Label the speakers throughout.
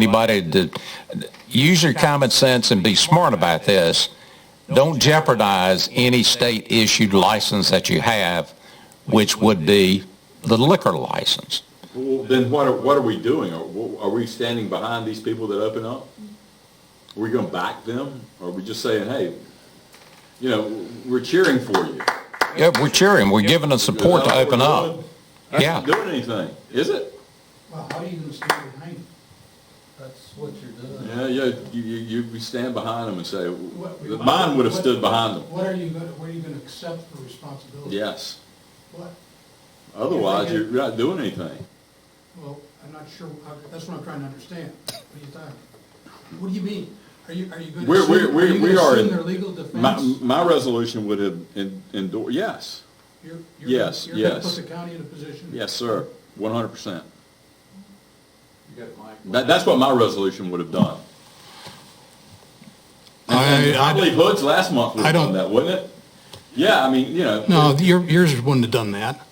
Speaker 1: anybody to, use your common sense and be smart about this. Don't jeopardize any state-issued license that you have, which would be the liquor license.
Speaker 2: Well, then what are, what are we doing? Are, are we standing behind these people that open up? Are we gonna back them? Or are we just saying, hey, you know, we're cheering for you?
Speaker 1: Yeah, we're cheering, we're giving them support to open up.
Speaker 2: That's
Speaker 1: Yeah.
Speaker 2: not doing anything, is it?
Speaker 3: Well, how are you gonna stand behind it? That's what you're doing.
Speaker 2: Yeah, yeah, you, you, you we stand behind them and say, mine would have stood behind them.
Speaker 3: What are you gonna, what are you gonna accept for responsibility?
Speaker 2: Yes.
Speaker 3: What,
Speaker 2: Otherwise, you're not doing anything.
Speaker 3: well, I'm not sure, how- that's what I'm trying to understand. What are you talking? What do you mean? Are you, are you gonna
Speaker 2: We're, we're,
Speaker 3: assume, are
Speaker 2: we're,
Speaker 3: you
Speaker 2: we
Speaker 3: gonna
Speaker 2: are
Speaker 3: assume
Speaker 2: in.
Speaker 3: their legal
Speaker 2: My,
Speaker 3: defense?
Speaker 2: my resolution would have en- endorsed, yes,
Speaker 3: You're- you're gonna-
Speaker 2: yes,
Speaker 3: You're gonna
Speaker 2: yes.
Speaker 3: put the county in a position?
Speaker 2: yes, sir, one hundred percent.
Speaker 3: You got it, Mike.
Speaker 2: That, that's what my resolution would have done.
Speaker 4: I,
Speaker 2: I
Speaker 4: I,
Speaker 2: believe Hood's last month would
Speaker 4: I
Speaker 2: have done
Speaker 4: don't-
Speaker 2: that, wouldn't it? Yeah, I mean, you know.
Speaker 4: no, your- yours wouldn't have done that.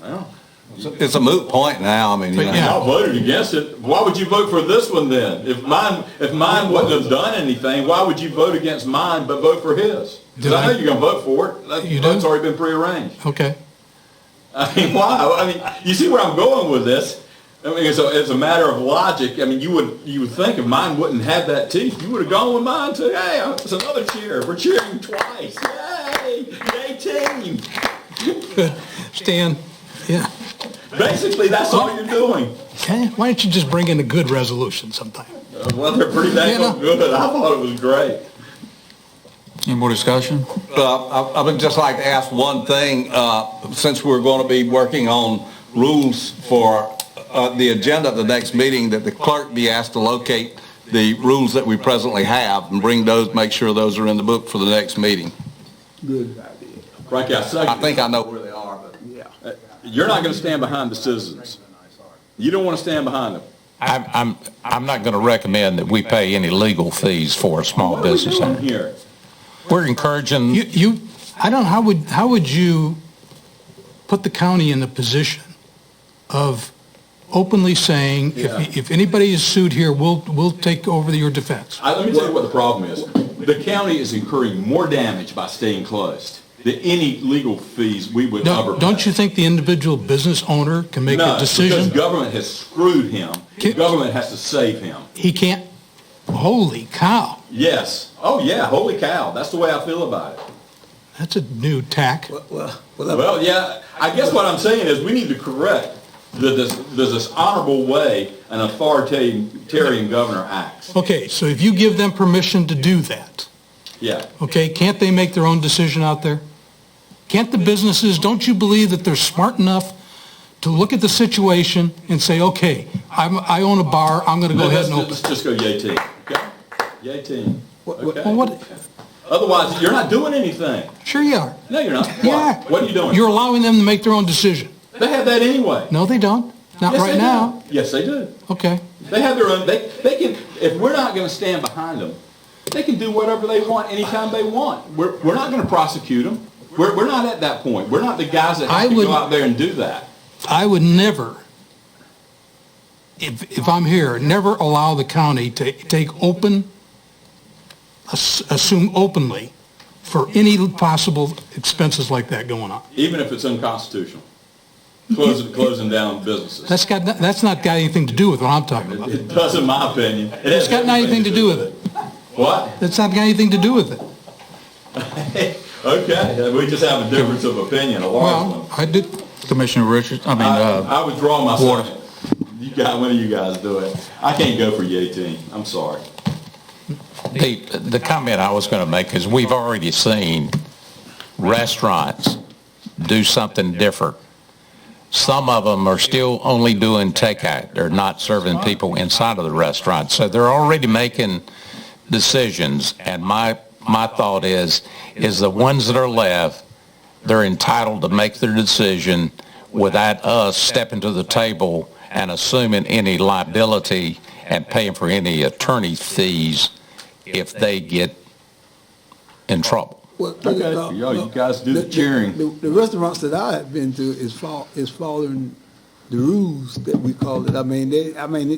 Speaker 2: Well,
Speaker 1: It's a moot point now, I mean, you
Speaker 4: But
Speaker 1: know.
Speaker 4: yeah.
Speaker 2: y'all voted against it. Why would you vote for this one then? If mine, if mine wouldn't have done anything, why would you vote against mine but vote for his? Because
Speaker 4: Did
Speaker 2: I
Speaker 4: I-
Speaker 2: know you're gonna vote for it. That
Speaker 4: You
Speaker 2: vote's
Speaker 4: do?
Speaker 2: already been prearranged.
Speaker 4: Okay.
Speaker 2: I mean, why? I mean, you see where I'm going with this? I mean, it's a, it's a matter of logic. I mean, you would you would think if mine wouldn't have that teeth, you would have gone with mine too. Hey, uh, it's another cheer. We're cheering twice. Yay! Yay team!
Speaker 4: Stan, yeah.
Speaker 2: Basically, that's all you're doing.
Speaker 4: Okay, why don't you just bring in a good resolution sometime?
Speaker 2: Uh, Well, they're pretty
Speaker 4: Yeah,
Speaker 2: dang
Speaker 4: no.
Speaker 2: good. I thought it was great.
Speaker 5: Any more discussion?
Speaker 6: Uh, I I would just like to ask one thing, uh, since we're going to be working on rules for uh, the agenda of the next meeting, that the clerk be asked to locate the rules that we presently have and bring those, make sure those are in the book for the next meeting.
Speaker 2: Frankie, I
Speaker 6: I
Speaker 2: second.
Speaker 6: think
Speaker 2: it.
Speaker 6: I know where they are, but...
Speaker 2: uh, You're not going to stand behind the citizens. You don't want to stand behind them.
Speaker 1: I'm, I'm, I'm not going to recommend that we pay any legal fees for a small
Speaker 5: Oh,
Speaker 2: What are we
Speaker 1: business
Speaker 2: doing
Speaker 1: owner.
Speaker 2: here?
Speaker 1: We're encouraging.
Speaker 4: You, you, I don't, how would, how would you put the county in the position of openly saying, if, if anybody is sued here, we'll, we'll take over your defense?
Speaker 2: I, let me tell you what the problem is. The county is incurring more damage by staying closed than any legal fees we would ever
Speaker 4: Don't,
Speaker 2: pay.
Speaker 4: don't you think the individual business owner can make
Speaker 2: No,
Speaker 4: a decision?
Speaker 2: because government has screwed him.
Speaker 4: Can-
Speaker 2: Government has to save him.
Speaker 4: He can't, holy cow,
Speaker 2: Yes. Oh, yeah, holy cow. That's the way I feel about it.
Speaker 4: that's a new tack.
Speaker 2: Well, yeah, I guess what I'm saying is we need to correct the, this, there's this honorable way an authoritarian governor acts.
Speaker 4: Okay, so if you give them permission to do that,
Speaker 2: Yeah.
Speaker 4: okay, can't they make their own decision out there? Can't the businesses, don't you believe that they're smart enough to look at the situation and say, okay, I'm, I own a bar, I'm gonna go
Speaker 2: Let's,
Speaker 4: ahead and open?
Speaker 2: let's just go yay team. Okay? Yay team.
Speaker 4: Well,
Speaker 2: Okay.
Speaker 4: what,
Speaker 2: Otherwise, you're not doing anything.
Speaker 4: sure you are.
Speaker 2: No, you're not.
Speaker 4: Yeah.
Speaker 2: What? What are you doing?
Speaker 4: You're allowing them to make their own decision.
Speaker 2: They have that anyway.
Speaker 4: No, they don't. Not
Speaker 2: Yes,
Speaker 4: right
Speaker 2: they do.
Speaker 4: now.
Speaker 2: Yes, they do.
Speaker 4: Okay.
Speaker 2: They have their own, they, they can, if we're not gonna stand behind them, they can do whatever they want anytime they want. We're, we're not gonna prosecute them. We're, we're not at that point. We're not the guys that
Speaker 4: I
Speaker 2: have to
Speaker 4: would-
Speaker 2: go out there and do that.
Speaker 4: I would never, if, if I'm here, never allow the county to take open, ass- assume openly for any possible expenses like that going on.
Speaker 2: Even if it's unconstitutional. Closing, closing down businesses.
Speaker 4: That's got, no- that's not got anything to do with what I'm talking about.
Speaker 2: It does, in my opinion.
Speaker 4: It's got nothing to do with it.
Speaker 2: What?
Speaker 4: That's not got anything to do with it.
Speaker 2: Okay, we just have a difference of opinion, a large one.
Speaker 4: Well, I did,
Speaker 5: Commissioner Richards, I mean, uh,
Speaker 2: I, I withdraw my
Speaker 5: Warner.
Speaker 2: second. You got, one of you guys do it. I can't go for yay team. I'm sorry.
Speaker 1: The, the comment I was going to make is we've already seen restaurants do something different. Some of them are still only doing takeout. They're not serving people inside of the restaurant. So they're already making decisions. And my, my thought is, is the ones that are left, they're entitled to make their decision without us stepping to the table and assuming any liability and paying for any attorney fees if they get in trouble.
Speaker 2: Okay,
Speaker 7: uh,
Speaker 2: y'all, you guys do the cheering.
Speaker 7: The the restaurants that I have been to is fall, is falling the rules that we call it. I mean, they, I mean, it-